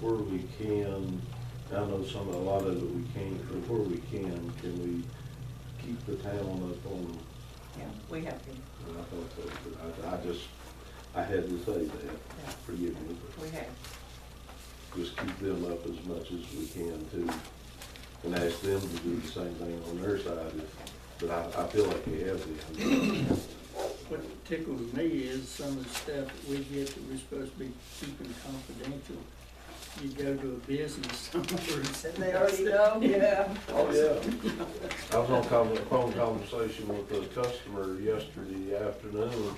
where we can, I know some, a lot of it we can't, but where we can, can we keep the town up on, Yeah, we have been, and I thought so, but I, I just, I had to say that, yeah, forgive me, we have. but just keep them up as much as we can too. And ask them to do the same thing on their side, if- but I, I feel like we have them. What tickles me is some of the stuff that we get that we're supposed to be keeping confidential. You go to a business somewhere and say. They already know, yeah. Oh, yeah. I was on con- a phone conversation with a customer yesterday afternoon,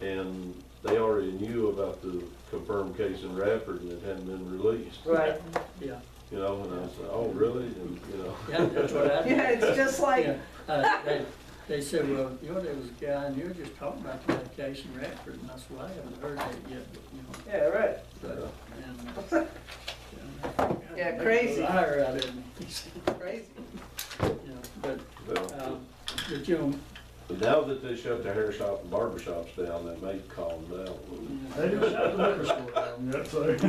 and they already knew about the confirmed case in Radford and it hadn't been released. Right, Yeah, You know, and I said, oh, really? And, you know, yeah, that's what I yeah, do. it's just like, Yeah, uh, they, they said, well, you know, there was a guy, and you were just talking about the vacation Radford, and I said, well, I haven't heard that yet, but, you know, yeah, right. but, and. uh, you know, Yeah, make a crazy. Liar out of him, Crazy. you know, but, well, um, but, you know, but now that they shut the hair shop and barber shops down, they may calm down. a little. you know, They just shut the liquor store down, that's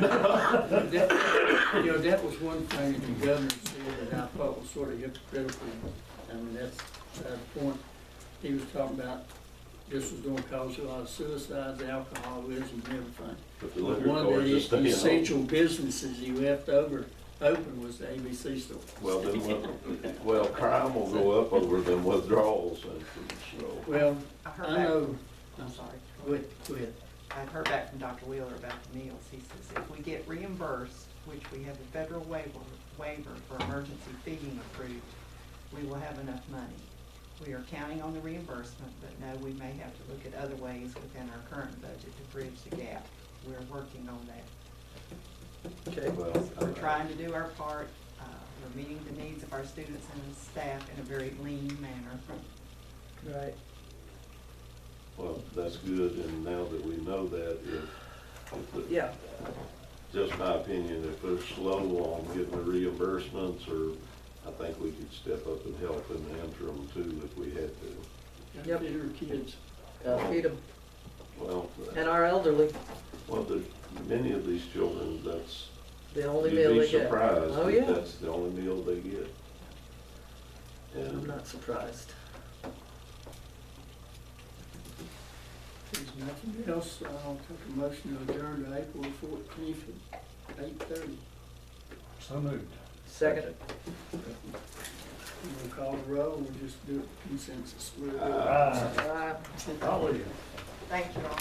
That- You know, that was one thing that the governor said that I thought was sort of hypocritical. I mean, that's that point. He was talking about this was gonna cause a lot of suicides, alcoholism, and everything. But the liquor One of stores just the staying essential home. businesses he left over, open was the ABC store. Well, then, what- well, crime will go up over them withdrawals, and so. Well, I heard I back, know, I'm sorry, go ahead, go ahead. I've heard back from Dr. Wheeler about the meals. He says if we get reimbursed, which we have a federal waiver, waiver for emergency feeding approved, we will have enough money. We are counting on the reimbursement, but no, we may have to look at other ways within our current budget to bridge the gap. We're working on that. Okay. Well, I- We're trying to do our part. Uh, We're meeting the needs of our students and staff in a very lean manner. Right. Well, that's good, and now that we know that, if, if the- Yeah. just my opinion, if they're slow on getting the reimbursements, or I think we could step up and help in the interim too, if we had to. Yep. Your kids. Uh, feed 'em. Well, And our elderly, well, there's many of these children, that's, the only meal you'd be they get. surprised Oh, that yeah. that's the only meal they get. I'm And not surprised. There's nothing else, I'll take a motion to adjourn to April fourteenth at eight thirty. So moved. Second, We'll call the roll, we'll just do it consensus. We'll do it. Uh, Ah, uh, golly. Thank you all.